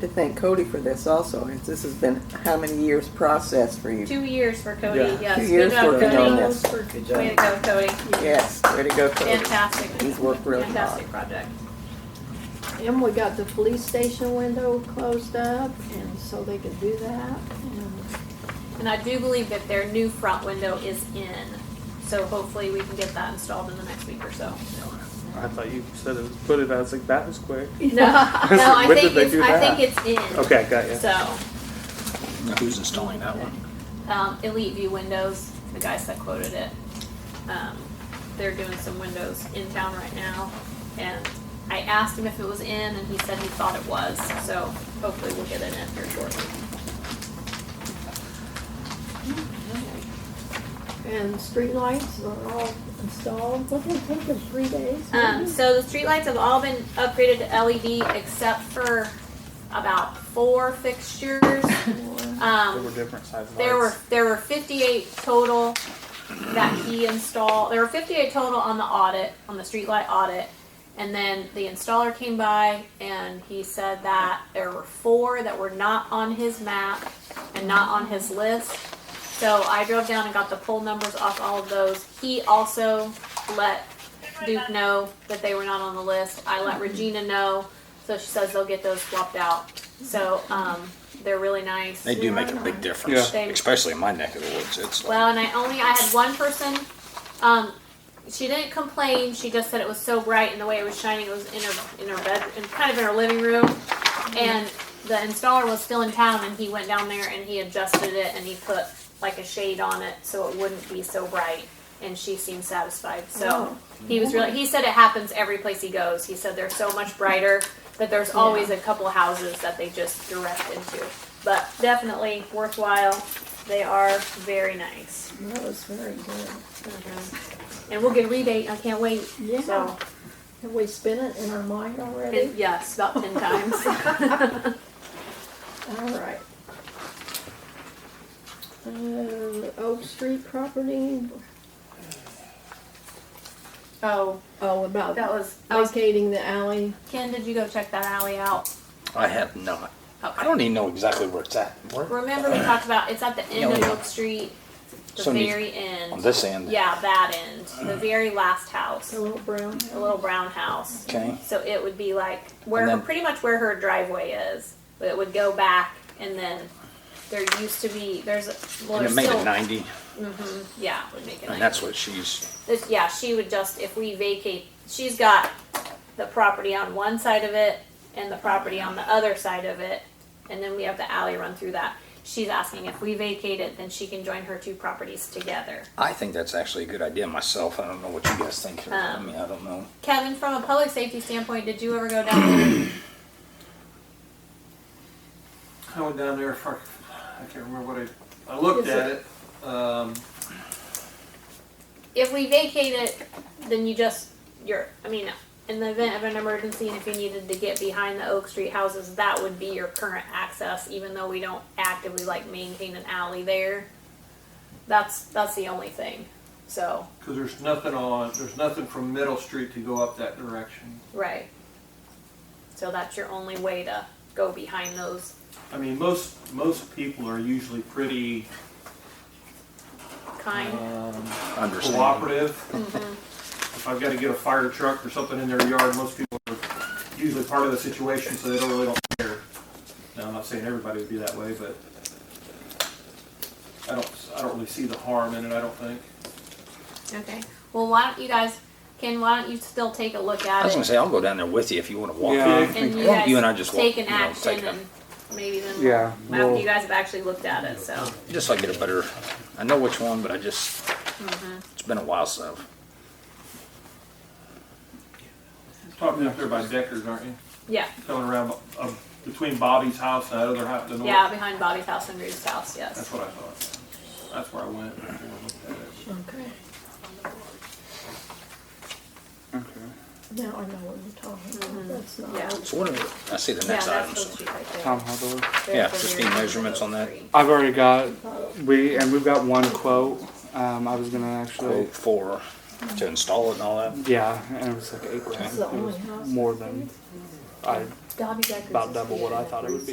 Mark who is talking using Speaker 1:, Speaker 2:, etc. Speaker 1: to thank Cody for this also, as this has been how many years process for you?
Speaker 2: Two years for Cody,
Speaker 3: Yeah.
Speaker 2: yes.
Speaker 1: Two
Speaker 2: Good
Speaker 1: years
Speaker 2: job,
Speaker 1: working on
Speaker 2: Cody.
Speaker 1: this.
Speaker 3: Good
Speaker 2: Way to
Speaker 3: job.
Speaker 2: go, Cody.
Speaker 1: Yes, way to go, Cody.
Speaker 2: Fantastic.
Speaker 1: He's worked really hard.
Speaker 2: Fantastic project.
Speaker 4: And we got the police station window closed up, and so they could do that. And
Speaker 2: And I do believe that their new front window is in, so hopefully we can get that installed in the next week or so.
Speaker 3: I thought you said it was put it. I was like, that was quick.
Speaker 2: No, no, I
Speaker 3: When did
Speaker 2: think
Speaker 3: they
Speaker 2: it's,
Speaker 3: do
Speaker 2: I
Speaker 3: that?
Speaker 2: think it's in.
Speaker 3: Okay, got you.
Speaker 2: So,
Speaker 5: Who's installing that one?
Speaker 2: um, Elite View Windows, the guys that quoted it, um, they're doing some windows in town right now. And I asked him if it was in, and he said he thought it was, so hopefully we'll get it in here shortly.
Speaker 4: and streetlights are all installed. What did it take us, three days?
Speaker 2: Um,
Speaker 4: maybe?
Speaker 2: so the streetlights have all been upgraded to LED except for about four fixtures.
Speaker 3: There were
Speaker 2: Um,
Speaker 3: different sizes.
Speaker 2: there were, there were fifty-eight total that he installed, there were fifty-eight total on the audit, on the streetlight audit. And then the installer came by and he said that there were four that were not on his map and not on his list. So I drove down and got the poll numbers off all of those. He also let Duke know that they were not on the list. I let Regina know, so she says they'll get those swapped out. So um, they're really nice.
Speaker 5: They do make a big difference,
Speaker 2: Yeah.
Speaker 5: especially in my neck of the woods. It's like,
Speaker 2: Well, and I only I had one person. Um, she didn't complain. She just said it was so bright and the way it was shining. It was in her in her bed, in, kind of in her living room. And the installer was still in town, and he went down there and he adjusted it and he put like a shade on it so it wouldn't be so bright. And she seemed satisfied. So he was really. He said it happens every place he goes. He said they're so much brighter that there's always a couple houses that they just direct into. But definitely worthwhile. They are very nice.
Speaker 6: That was very good.
Speaker 2: And we'll get a rebate. I can't wait.
Speaker 4: Yeah,
Speaker 2: So,
Speaker 4: have we spent it in our mind
Speaker 2: it-
Speaker 4: already?
Speaker 2: yes, about 10 times.
Speaker 4: All right. Um, Oak Street property,
Speaker 2: oh,
Speaker 4: oh, about
Speaker 2: that was. I was
Speaker 4: vacating the alley.
Speaker 2: Ken, did you go check that alley out?
Speaker 5: I have not. I
Speaker 2: Okay.
Speaker 5: don't even know exactly where it's at. Where?
Speaker 2: Remember we talked about it's at the end
Speaker 5: Oh, Yeah,
Speaker 2: of
Speaker 5: yeah.
Speaker 2: Oak Street, the
Speaker 5: So neat.
Speaker 2: very
Speaker 5: On
Speaker 2: end.
Speaker 5: this end. Mm.
Speaker 2: Yeah, that end. The very last house.
Speaker 4: The little brown
Speaker 2: The little brown house.
Speaker 5: Okay.
Speaker 2: So it would be like where
Speaker 5: And
Speaker 2: her,
Speaker 5: then-
Speaker 2: pretty much where her driveway is. But it would go back and then there used to be there's a- well
Speaker 5: And it
Speaker 2: there's
Speaker 5: made
Speaker 2: still,
Speaker 5: it 90,
Speaker 2: yeah, it would make it
Speaker 5: and
Speaker 2: nice.
Speaker 5: that's what she's,
Speaker 2: This, yeah, she would just, if we vacate, she's got the property on one side of it and the property on the other side of it, and then we have the alley run through that. She's asking if we vacate it, then she can join her two properties together.
Speaker 5: I think that's actually a good idea myself. I don't know what you guys think. I
Speaker 2: Um,
Speaker 5: mean, I don't know.
Speaker 2: Kevin, from a public safety standpoint, did you ever go down there?
Speaker 7: I went down there for, I can't remember what I, I looked
Speaker 4: Is
Speaker 7: at it. Um,
Speaker 2: If we vacate it, then you just, you're, I mean, in the event of an emergency and if you needed to get behind the Oak Street houses, that would be your current access, even though we don't actively like maintain an alley there. That's, that's the only thing, so,
Speaker 7: cause there's nothing on, there's nothing from Middle Street to go up that direction.
Speaker 2: right. So that's your only way to go behind those.
Speaker 7: I mean, most, most people are usually pretty,
Speaker 2: Kind,
Speaker 7: um,
Speaker 5: Understand.
Speaker 7: cooperative. If I've gotta get a fire truck or something in their yard, most people are usually part of the situation, so they don't really don't care. Now, I'm not saying everybody would be that way, but I don't, I don't really see the harm in it, I don't think.
Speaker 5: Uh-huh.
Speaker 2: okay. Well, why don't you guys, Ken, why don't you still take a look
Speaker 5: I
Speaker 2: at
Speaker 5: was
Speaker 2: it?
Speaker 5: gonna say, I'll go down there with you if you wanna walk.
Speaker 3: Yeah.
Speaker 5: it.
Speaker 2: And you
Speaker 5: Why don't you and I
Speaker 2: guys
Speaker 5: just walk,
Speaker 2: take an
Speaker 5: you know, take
Speaker 2: action
Speaker 5: a-
Speaker 2: and maybe then. we'll-
Speaker 3: Yeah,
Speaker 2: After
Speaker 3: we'll-
Speaker 2: you guys have actually looked at it, so.
Speaker 5: Just so I get a better, I know which one, but I just,
Speaker 2: Mm-hmm.
Speaker 5: it's been a while, so.
Speaker 7: Talking up there by Deckers, aren't you?
Speaker 2: Yeah,
Speaker 7: coming around uh, between Bobby's house and that other house. The north.
Speaker 2: yeah, behind Bobby's house and Rudy's house, yes.
Speaker 7: That's what I thought. That's where I went. before I looked at it.
Speaker 4: Okay. Now I know what you're talking about, that's not.
Speaker 2: Mm-hmm. Yeah.
Speaker 5: So what, are- I see the
Speaker 2: Yeah,
Speaker 5: next item.
Speaker 2: that's those two right there.
Speaker 3: Tom Hubbard.
Speaker 2: There's
Speaker 5: yeah,
Speaker 2: the
Speaker 5: just
Speaker 2: mirror
Speaker 5: need
Speaker 2: and
Speaker 5: measurements on that.
Speaker 2: three.
Speaker 3: I've already got we and we've got one quote. Um, I was gonna actually.
Speaker 5: quote for to install it and all that.
Speaker 3: Yeah, and it was like eight grand.
Speaker 4: That's the
Speaker 3: It was
Speaker 4: only house.
Speaker 3: more than I
Speaker 2: Dobby Deckers.
Speaker 3: about
Speaker 2: is
Speaker 3: double what I thought it would be.